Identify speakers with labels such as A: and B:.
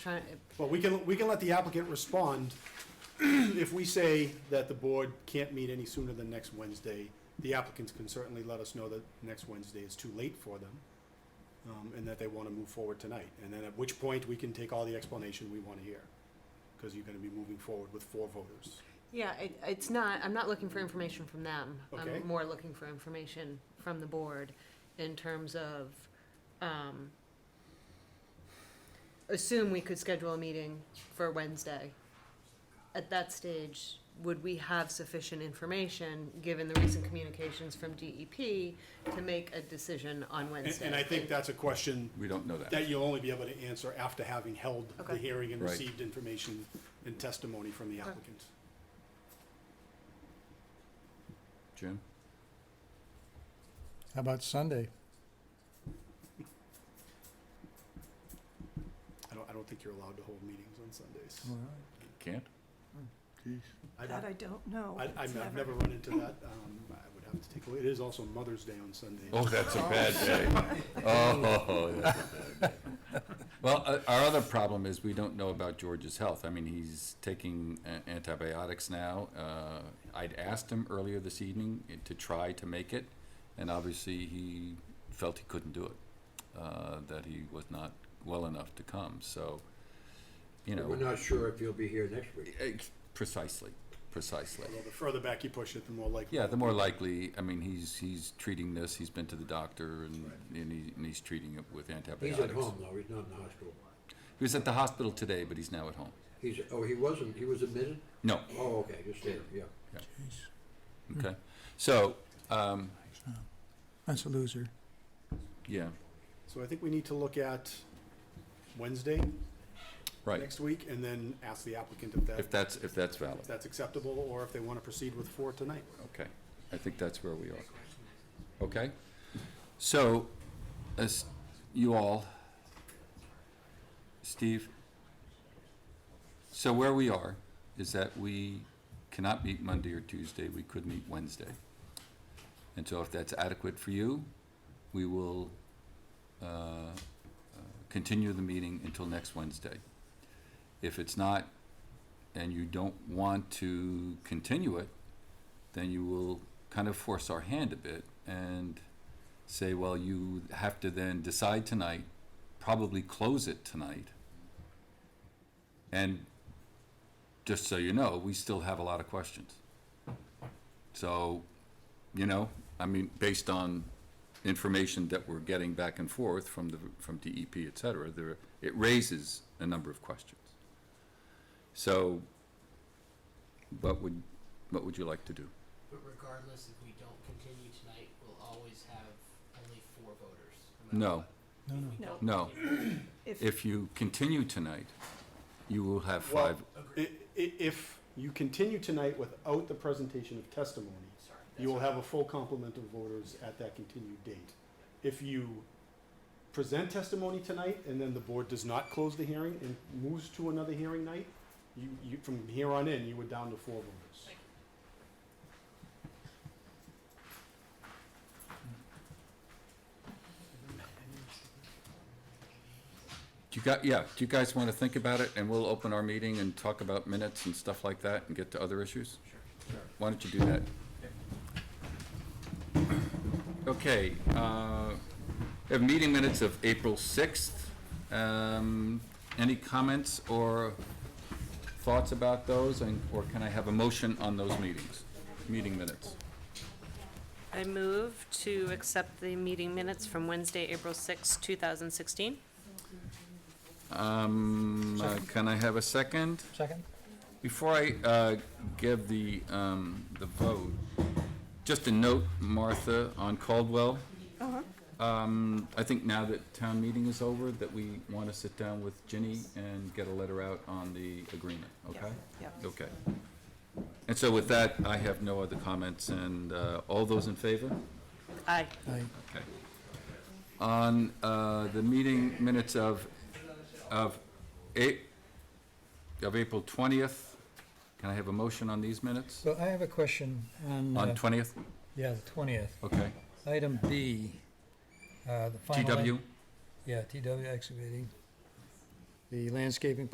A: trying,
B: But we can, we can let the applicant respond. If we say that the board can't meet any sooner than next Wednesday, the applicants can certainly let us know that next Wednesday is too late for them, um, and that they want to move forward tonight. And then at which point, we can take all the explanation we want to hear, because you're going to be moving forward with four voters.
A: yeah, it, it's not, I'm not looking for information from them.
B: Okay.
A: I'm more looking for information from the board in terms of, um, assume we could schedule a meeting for Wednesday. At that stage, would we have sufficient information, given the recent communications from DEP, to make a decision on
B: And,
A: Wednesday?
B: and I think that's a question
C: We don't know that.
B: that you'll only be able to answer after having held the
A: Okay.
B: hearing and
C: Right.
B: received information and testimony from the
A: Okay.
B: applicant.
C: Jim?
D: How about Sunday?
B: I don't, I don't think you're allowed to hold meetings on Sundays.
C: Can't?
B: I don't-
E: That I don't know.
B: I, I'm-
E: It's
B: I've never run into that. Um, I would have to take a look. It is also Mother's Day on Sunday.
C: Oh, that's a bad day. Oh, that's a bad day. Well, uh, our other problem is we don't know about George's health. I mean, he's taking a- antibiotics now. Uh, I'd asked him earlier this evening i- to try to make it, and obviously he felt he couldn't do it, uh, that he was not well enough to come, so, you
F: We're
C: know,
F: not sure if you'll be here next week.
C: ex- precisely, precisely.
B: Although the further back you push it, the more likely.
C: Yeah, the more likely, I mean, he's, he's treating this, he's been to the doctor and, and he, and he's treating it with
F: He's
C: antibiotics.
F: at home though, he's not in the hospital.
C: He was at the hospital today, but he's now at home.
F: He's, oh, he wasn't, he was admitted?
C: No,
F: Oh, okay, just there, yeah. Hmm.
C: okay. So, um,
D: That's a loser.
C: yeah,
B: So I think we need to look at Wednesday
C: right.
B: next week and then ask the applicant if that,
C: If that's, if that's
B: if
C: valid,
B: that's acceptable or if they want to proceed with four tonight.
C: okay. I think that's where we are. Okay? So, as you all, Steve, so where we are is that we cannot meet Monday or Tuesday, we could meet Wednesday. And so if that's adequate for you, we will uh, uh, continue the meeting until next Wednesday. If it's not, and you don't want to continue it, then you will kind of force our hand a bit and say, well, you have to then decide tonight, probably close it tonight. And just so you know, we still have a lot of questions. So, you know, I mean, based on information that we're getting back and forth from the, from DEP, et cetera, there, it raises a number of questions. So, what would, what would you like to do?
G: But regardless, if we don't continue tonight, we'll always have only four voters.
C: No.
G: matter
D: No,
G: what. If
E: No.
G: we don't
C: No,
G: continue-
C: if you continue tonight, you will have five,
B: I, i- if you continue tonight without the presentation of testimony,
G: Sorry.
B: you
G: that's
B: will
G: what-
B: have a full complement of voters at that continued date. If you present testimony tonight and then the board does not close the hearing and moves to another hearing night, you, you, from here on in, you were down to four voters.
C: do you got, yeah, do you guys want to think about it, and we'll open our meeting and talk about minutes and stuff like that, and get to other issues? Why don't you do that? Okay, uh, we have meeting minutes of April sixth, um, any comments or thoughts about those, and, or can I have a motion on those meetings, meeting minutes?
H: I move to accept the meeting minutes from Wednesday, April sixth, two 2016.
C: Um, uh, can I have a second?
D: Second?
C: Before I, uh, give the, um, the vote, just a note, Martha, on Caldwell. Um, I think now that town meeting is over, that we wanna sit down with Ginny and get a letter out on the agreement, okay?
E: yeah.
C: Okay. And so with that, I have no other comments, and, uh, all those in favor?
H: Aye.
D: Aye.
C: Okay. On uh, the meeting minutes of, of A, of April 20th, can I have a motion on these minutes?
D: So I have a question on,
C: On
D: uh,
C: 20th?
D: yeah, the twentieth.
C: Okay.
D: Item B, uh, the final.
C: TW?
D: Yeah, TW excavating. the landscaping